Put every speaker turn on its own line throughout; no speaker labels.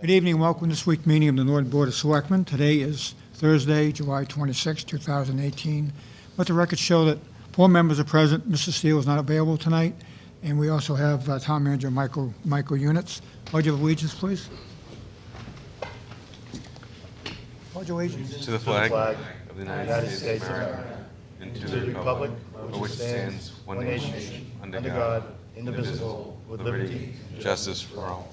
Good evening, welcome to this week's meeting of the Northern Board of Selectmen. Today is Thursday, July 26, 2018. Let the record show that four members are present, Mr. Steele is not available tonight, and we also have uh, Town Manager Michael, Michael Units. Pledge of allegiance, please. Pledge of allegiance.
To the flag
flag
of the United States of America and to the republic for which it stands one nation, under God, indivisible, with liberty and justice for all.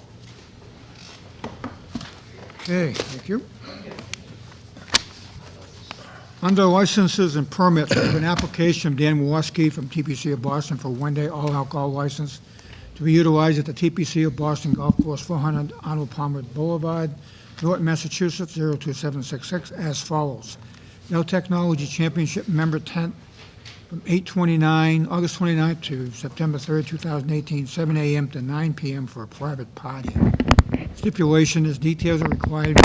Okay, thank you. Under licenses and permits, we have an application from Dan Woski from TPC of Boston for a one-day all-alcohol license to be utilized at the TPC of Boston Golf Course, 400 Arnold Palmer Boulevard, Norton, Massachusetts, 02766, as follows. No Technology Championship Member Tent from 8:29, August 29th to September 3rd, 2018, 7 a.m. to 9 p.m. for a private party. Stipulation is details are required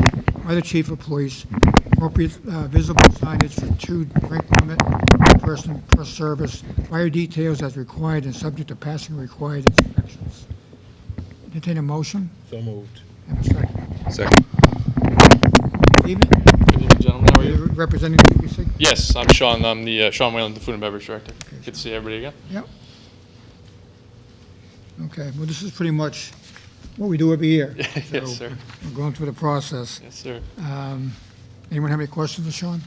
by the chief of police, appropriate uh, visible signage for two drink limit per person per service, fire details as required and subject to passing required inspections. Entertain a motion? So moved. Have a second.
Second.
Evening,
Good evening, gentlemen.
Oh,
How are you?
representing the precinct?
Yes, I'm Sean. I'm the uh, Sean Whalen, the Food and Beverage Director. Good to see everybody again.
Yep. Okay, well, this is pretty much what we do every year. So,
Yes, sir.
We're going through the process.
Yes, sir.
Um, Anyone have any questions for Sean?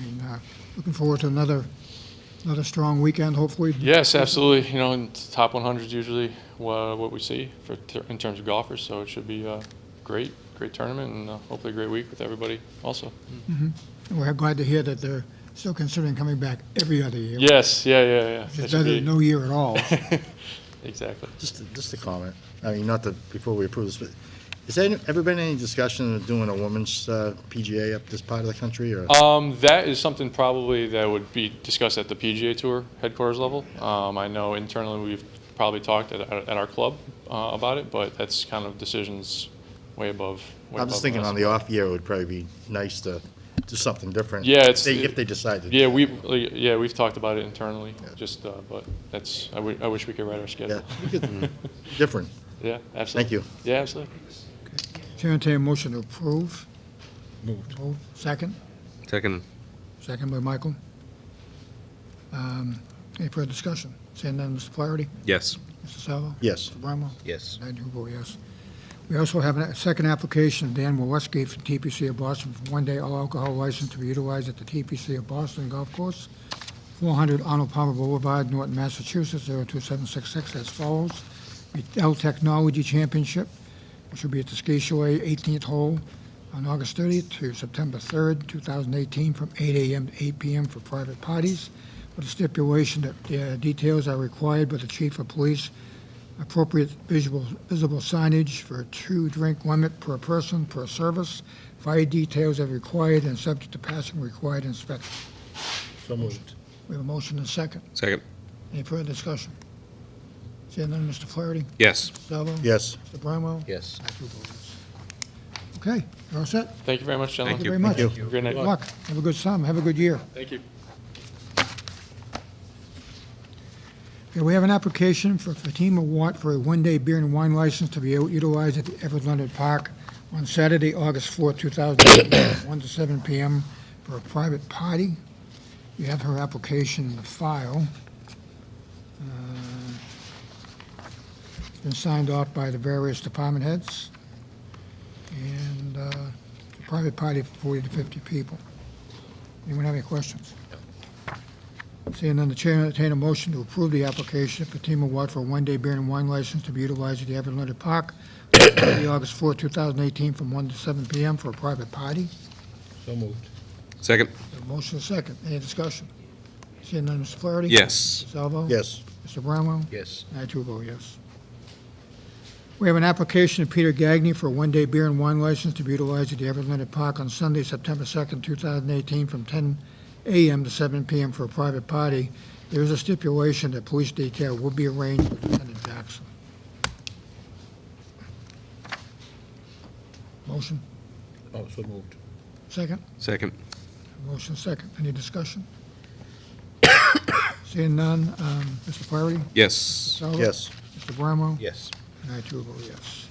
I mean, uh, looking forward to another, another strong weekend, hopefully.
Yes, absolutely. You know, and the top 100 is usually wha- what we see for ter- in terms of golfers, so it should be a great, great tournament and uh, hopefully a great week with everybody also.
We're glad to hear that they're still considering coming back every other year.
Yes, yeah, yeah, yeah. That
It's
should
better
be-
than no year at all.
Exactly.
Just, a- just a comment. I mean, not that, before we approve this, but has there ever been any discussion of doing a women's uh, PGA up this part of the country or?
Um, that is something probably that would be discussed at the PGA Tour headquarters level. Um, I know internally we've probably talked at, at our club uh, about it, but that's kind of decisions way above. Way
I'm just
above
thinking
us.
on the off year, it would probably be nice to do something different.
Yeah, it's-
They- If they decide to.
Yeah, we like, yeah we've talked about it internally. Just uh, but that's I wi- I wish we could write our
Yeah,
schedule.
we could- different.
Yeah, absolutely.
Thank you.
Yeah, absolutely.
Chair entertain a motion to approve. Moved. Second?
Second.
Second by Michael. Um, Any further discussion? Seeing none, Mr. Flaherty?
Yes.
Mr. Salvo?
Yes.
Mr. Bramwell?
Yes.
I do vote yes. We also have a second application, of Dan Westgate from TPC of Boston, for one-day all-alcohol license to be utilized at the TPC of Boston Golf Course, 400 Arnold Palmer Boulevard, Norton, Massachusetts, 02766, as follows. The L Technology Championship, which will be at the Ski Chalet, 18th hole, on August 30th to September 3rd, 2018, from 8 a.m. to 8 p.m. for private parties, with a stipulation that uh, details are required by the chief of police appropriate visual, visible signage for a two-drink limit per person per service. Fire details are required and subject to passing required inspection.
So moved.
We have a motion and a second.
Second.
Any further discussion? Seeing none, Mr. Flaherty?
Yes.
Salvo?
Yes.
Mr. Bramwell?
Yes.
I do vote yes. Okay, you're all set?
Thank you very much, gentlemen.
Thank you very much.
Thank
Great night.
Good luck. Have a good summer. Have a good year.
Thank you.
Okay, we have an application for Fatima Watt for a one-day beer and wine license to be utilized at the Everett Leonard Park on Saturday, August 4, 2018, 1 to 7 p.m. for a private party. You have her application in the file. Uh, It's been signed off by the various department heads. And uh, it's a private party for 40 to 50 people. Anyone have any questions? Seeing none, the chair will entertain a motion to approve the application of Fatima Watt for a one-day beer and wine license to be utilized at the Everett Leonard Park on Saturday, August 4, 2018, from 1 to 7 p.m. for a private party.
So moved.
Second.
A Motion is second. Any discussion? Seeing none, Mr. Flaherty?
Yes.
Mr. Salvo?
Yes.
Mr. Brownwell?
Yes.
I too vote yes. We have an application of Peter Gagnon for a one-day beer and wine license to be utilized at the Everett Leonard Park on Sunday, September 2nd, 2018, from 10 a.m. to 7 p.m. for a private party. There is a stipulation that police detail will be arranged with Lieutenant Jackson. Motion,
Oh, so moved.
second?
Second.
Motion second. Any discussion? Seeing none, um, Mr. Flaherty?
Yes.
Salvo?
Yes.
Mr. Bramwell?
Yes.
And I too vote yes.